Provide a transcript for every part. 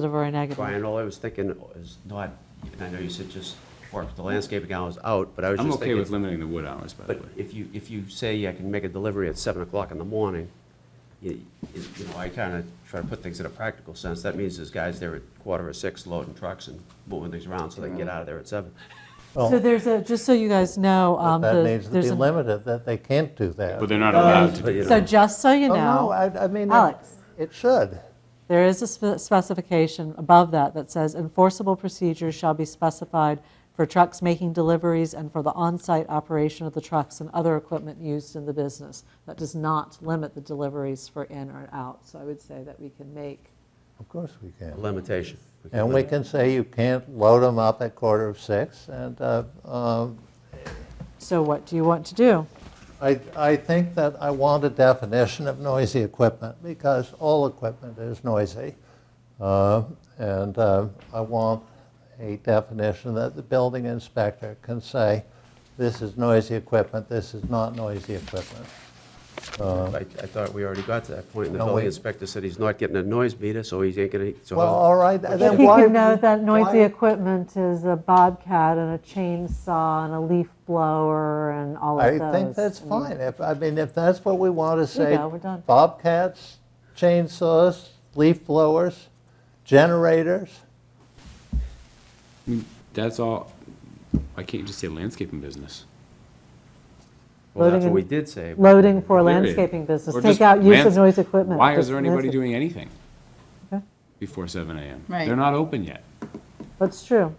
positive or a negative? Brian, all I was thinking is not, and I know you said just work the landscaping hours out, but I was I'm just okay with thinking, limiting the wood hours, by the but way. if you, if you say I can make a delivery at seven o'clock in the morning, you, you you know, I kind of try to put things in a practical sense. That means there's guys there at quarter or six loading trucks and moving things around so they can get out of there at seven. So Well, there's a, just so you guys know, um, Oh. that the- needs to there's be an- limited, that they can't do that. But they're not allowed to But, do you that. So know, just so you Oh, no, know, I, I mean, it- Alex. it should. there is a spe- specification above that that says enforceable procedures shall be specified for trucks making deliveries and for the on-site operation of the trucks and other equipment used in the business. That does not limit the deliveries for in or out. So I would say that we can make, Of course we can. limitation. can And we limit. can say you can't load them up at quarter of six, and uh, um, so what do you want to do? I, I think that I want a definition of noisy equipment, because all equipment is noisy. Uh, And uh, I want a definition that the building inspector can say, this is noisy equipment, this is not noisy equipment. I, I thought we already got to that point. and The No, building we- inspector said he's not getting a noise meter, so he's ain't gonna, so. Well, how- all right, then He why? can know that noisy why- equipment is a bobcat and a chainsaw and a leaf blower and all of I those. think that's I mean, fine. If, I mean, if that's what we want to say. go, we're done. Bobcats, chainsaws, leaf blowers, generators. That's all, why can't you just say landscaping business? Well, that's Loading what we and- did say. but- Loading for Period. landscaping business, Or take just out use of lands- noise equipment. Why is Just there anybody landscape- doing anything Okay. before seven AM? Right. They're not open yet. That's true.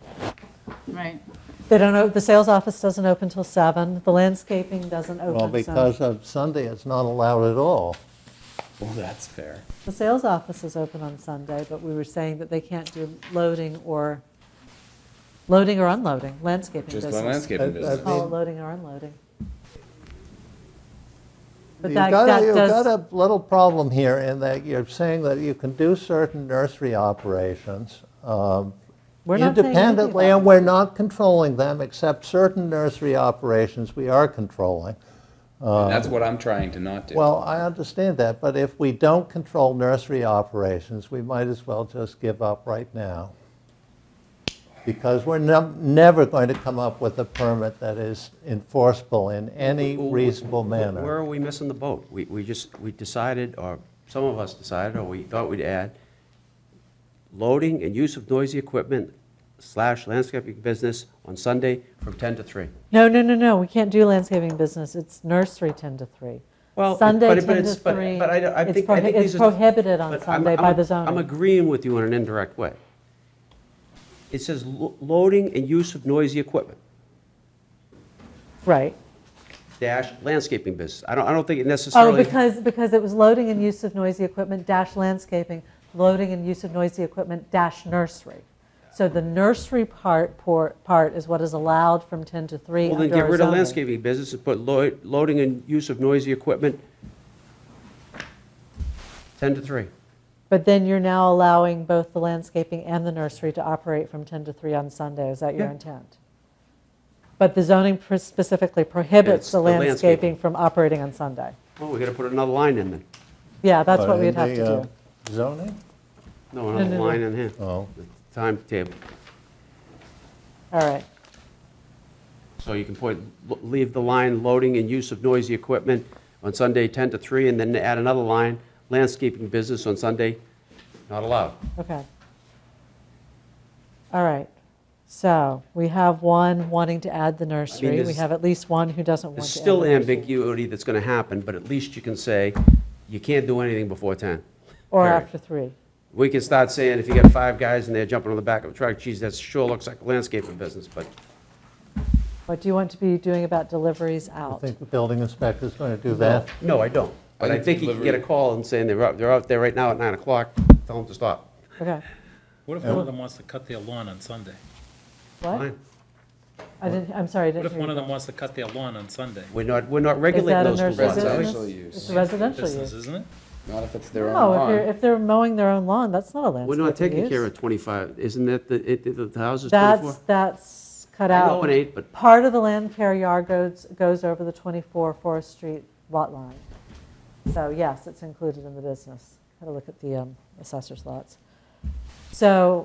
Right. They don't, o- the sales office doesn't open till seven. the landscaping doesn't open. Well, so- because of Sunday, it's not allowed at all. Well, that's fair. The sales office is open on Sunday, but we were saying that they can't do loading or, loading or unloading, landscaping Just business. the landscaping That- that- business. Call it loading or unloading. But You've that- got, that a- you've does- got a little problem here in that you're saying that you can do certain nursery operations um, We're not saying anything independently, about and we're not controlling them, except certain nursery operations we are controlling. That's what I'm trying to not do. Well, I understand that, but if we don't control nursery operations, we might as well just give up right now. Because we're num- never going to come up with a permit that is enforceable in any Well, reasonable where- Where manner. are we missing the boat? We, we just, we decided, or some of us decided, or we thought we'd add, loading and use of noisy equipment slash landscaping business on Sunday from 10 to 3. No, no, no, no, we can't do landscaping business, it's nursery 10 to 3. Well, it- Sunday but- 10 but to it's- but- 3. But I, I It's think, I prohi- think It's these are- prohibited on but I'm- Sunday by I'm- the I'm zoning. agreeing with you in an indirect way. It says lo- loading and use of noisy equipment, Right. dash landscaping business. I don't, I don't think it Oh, necessarily. because, because it was loading and use of noisy equipment dash landscaping, loading and use of noisy equipment dash nursery. So the nursery part, por- part is what is allowed from 10 to 3 Well, under then our get rid of zoning. landscaping business and put lo- loading and use of noisy equipment 10 to 3. But then you're now allowing both the landscaping and the nursery to operate from 10 to 3 on Sunday, is that your Yeah. intent? But the zoning pr- specifically prohibits It's the the landscaping. landscaping from operating on Sunday. Oh, we gotta put another line in then. Yeah, that's what But we'd in have to the, do. uh, Zoning? No, no, another no. line in here. Oh. The Timetable. All right. So you can put, l- leave the line loading and use of noisy equipment on Sunday 10 to 3, and then add another line, landscaping business on Sunday, not allowed. Okay. All right. So we have one wanting to add the nursery. We there's- have at least one who doesn't want There's to add still the nursery. ambiguity that's gonna happen, but at least you can say, you can't do anything before 10. Or period. after three. We can start saying, if you got five guys and they're jumping on the back of a truck, geez, that sure looks like a landscaping business, but What do you want to be doing about deliveries I out? think the building inspector's going to do that. No, I don't. But I think you can get a call and saying they're out, they're out there right now at nine o'clock, tell them to stop. Okay. What if one of them wants to cut their lawn on Sunday? What? Fine. I didn't, I'm sorry, I What didn't if hear one of you. them wants to cut their lawn on Sunday? We're not, we're Is not that regulating a those two nursery lots, are we? Residential business? use. It's a residential Business, use. isn't it? Not if it's their own No, if lawn. you're, if they're mowing their own lawn, that's not a landscaping We're use. not taking care of twenty-five, isn't that, the, it, the- the house is That's, twenty-four? that's cut I out. know it ain't, but- Part of the land care yard goes, goes over the 24 Forest Street lot line. So yes, it's included in the business. Got to look at the um, assessor's lots. So